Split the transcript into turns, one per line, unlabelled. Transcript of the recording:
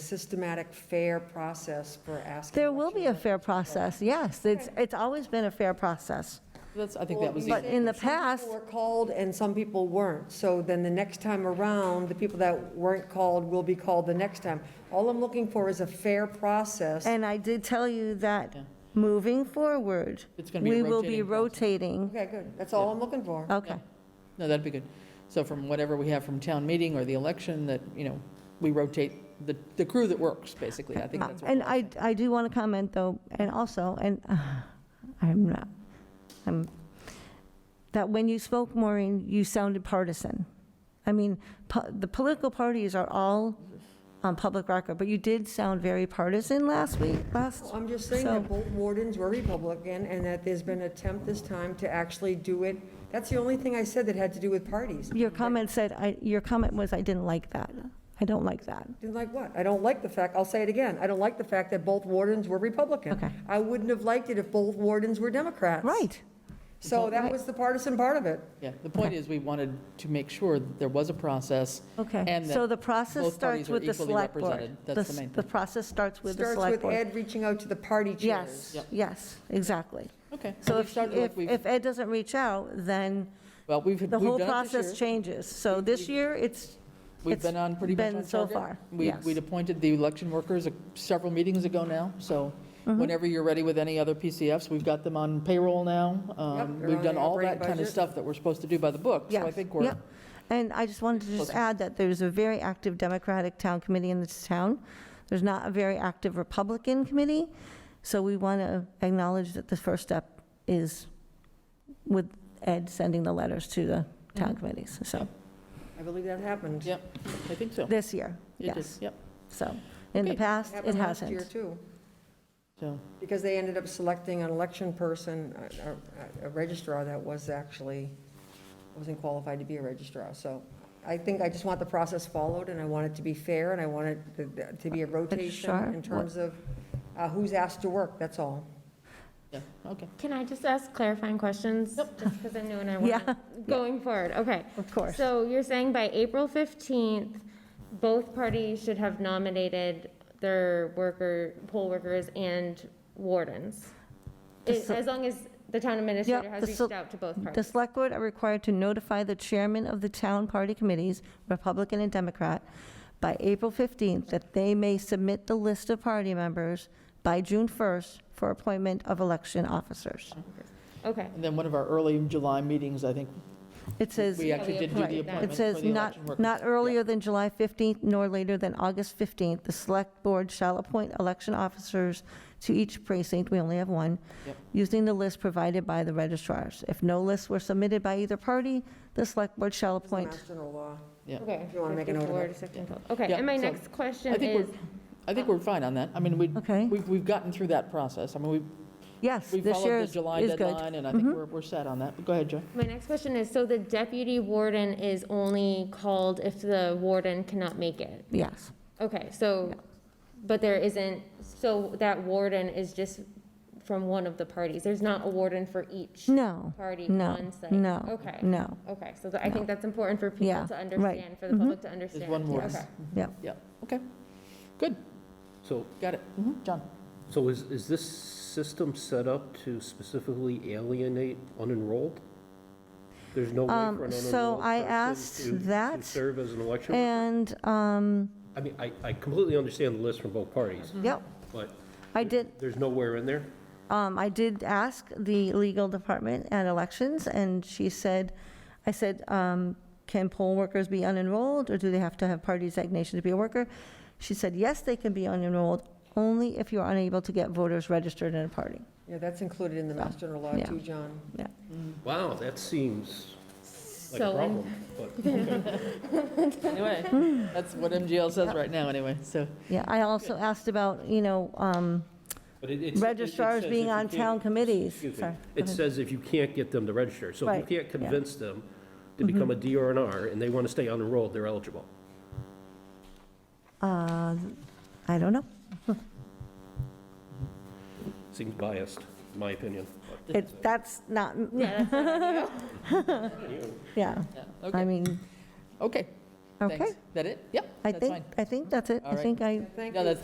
systematic, fair process for asking.
There will be a
election
fair process, yes. It's, it's always been a fair process.
That's, I think that was,
Well,
But
the-
we-
in the
Some
past,
people were called and some people weren't. So then the next time around, the people that weren't called will be called the next time. All I'm looking for is a fair process.
and I did tell you that
Yeah.
moving forward,
It's gonna be
we
a
will be rotating.
Okay, good. That's all I'm looking for.
Okay,
no, that'd be good. So from whatever we have from town meeting or the election, that, you know, we rotate the, the crew that works, basically. I think that's what.
And I, I do want to comment though, and also, and uh, I'm not, I'm, that when you spoke, Maureen, you sounded partisan. I mean, po- the political parties are all on public record, but you did sound very partisan last week, last.
I'm just saying
So-
that both wardens were Republican and that there's been an attempt this time to actually do it. That's the only thing I said that had to do with parties.
Your comment said, I, your comment was, I didn't like that. I don't like that.
Didn't like what? I don't like the fact, I'll say it again, I don't like the fact that both wardens were Republican.
Okay.
I wouldn't have liked it if both wardens were Democrats.
Right.
So that
Right.
was the partisan part of it.
Yeah, the point is, we wanted to make sure that there was a process.
Okay.
And
So
that
the process
both
starts
parties are
with the
equally
select board.
represented. That's the
s-
main
The
thing.
process starts with the
Starts with
select board.
Ed reaching out to the party chairs.
Yes,
Yep.
yes, exactly.
Okay.
So
We've
if,
started like
if,
we've-
if Ed doesn't reach out, then
Well, we've, we've
the
done
whole
it this
process
year.
changes. So this year, it's,
We've
it's
been on pretty much
been
on
so
target.
far,
We-
yes.
We'd appointed the election workers uh, several meetings ago now, so
Mm-hmm.
whenever you're ready with any other PCFs, we've got them on payroll now. Um,
they're
We've
on
done
the
all
operating
that kind of
budget.
stuff that we're supposed to do by the book. So I
yes,
think we're,
yep. And I just wanted to just
Closer.
add that there's a very active Democratic town committee in this town. There's not a very active Republican committee. So we want to acknowledge that the first step is with Ed sending the letters to the
Mm-hmm.
town committees, so,
Yep.
I believe that happened.
yep, I think so.
this year,
It
yes.
is, Yep,
So, in the
Okay.
past, it
Happened last year,
hasn't.
too,
so,
because they ended up selecting an election person, a- a a registrar that was actually, wasn't qualified to be a registrar. So I think I just want the process followed, and I want it to be fair, and I want it to- to be a
sure,
rotation in
what-
terms of uh, who's asked to work, that's all.
yeah, okay.
Can I just ask clarifying questions? Just because I'm new and I want
Yeah.
to, going forward, okay.
Of course.
So you're saying by April 15th, both parties should have nominated their worker, poll workers and wardens?
The
It-
se-
As long as the town administrator
Yep,
has
the
reached
se-
out to both
The
parties?
select board are required to notify the chairman of the town party committees, Republican and Democrat, by April 15th that they may submit the list of party members by June 1st for appointment of election officers.
Okay,
And then one of our early July meetings, I think,
It says,
we
it
actually did do the
Right.
appointment for
says
the election
not,
workers.
not
Yeah.
earlier than July 15th nor later than August 15th, the select board shall appoint election officers to each precinct, we only have one,
Yep.
using the list provided by the registrars. If no lists were submitted by either party, the select board shall appoint
Mass General law.
Yeah.
okay.
You wanna make a note of
54
it.
to 16. Okay,
Yeah,
and my
so
next question
I think we're,
is,
I think we're fine on that. I mean, we,
Okay.
we've, we've gotten through that process. I mean, we,
Yes,
we
this year
followed
is
the July
is good. Mm-hmm.
deadline, and I think we're, we're set on that. But Go ahead, Joe.
my next question is, so the deputy warden is only called if the warden cannot make it?
Yes,
Okay, so, but there isn't, so that warden is just from one of the parties? There's not a warden for each
no,
party
no,
on site?
no,
Okay.
no,
Okay, so I think that's important for
Yeah,
people to
right.
understand, for the
Mhm.
public to understand.
one warden.
Okay.
yeah.
Yeah, okay. Good,
So,
got it. Mhm, John?
so is, is this system set up to specifically alienate unenrolled? There's no way
Um,
for an
so
unenrolled
I asked
person to- to
that,
serve as an election? worker?
And, um,
I mean, I, I completely understand the list from both parties,
yep,
but
I did,
there's nowhere in there?
Um, I did ask the legal department at elections, and she said, I said, um, can poll workers be unenrolled, or do they have to have party designation to be a worker? She said, yes, they can be unenrolled, only if you're unable to get voters registered in a party.
Yeah, that's included in the Mass General law,
Yeah.
too, John.
Wow, that seems like a
So,
problem, but,
Anyway, that's what MGL says right now, anyway, so.
Yeah, I also asked about, you know, um,
but it- it's. it- it
registrars
says
being
if you
on
can't-
town committees.
Excuse me.
Sorry, go
It
ahead.
says if you can't get them to register, so
Right,
if you can't
yeah. Mm-hmm.
convince them to become a D or an R and they want to stay unenrolled, they're eligible.
Uh, I don't know.
Seems biased, in my opinion. but-
It, that's not,
Yeah, that's not on you.
yeah,
Yeah,
I
Okay,
mean,
okay.
Okay.
Thanks. That it? Yep,
I
that's
think,
fine.
I think that's it.
All
I
right.
think I
Thank
No,
you.
that's,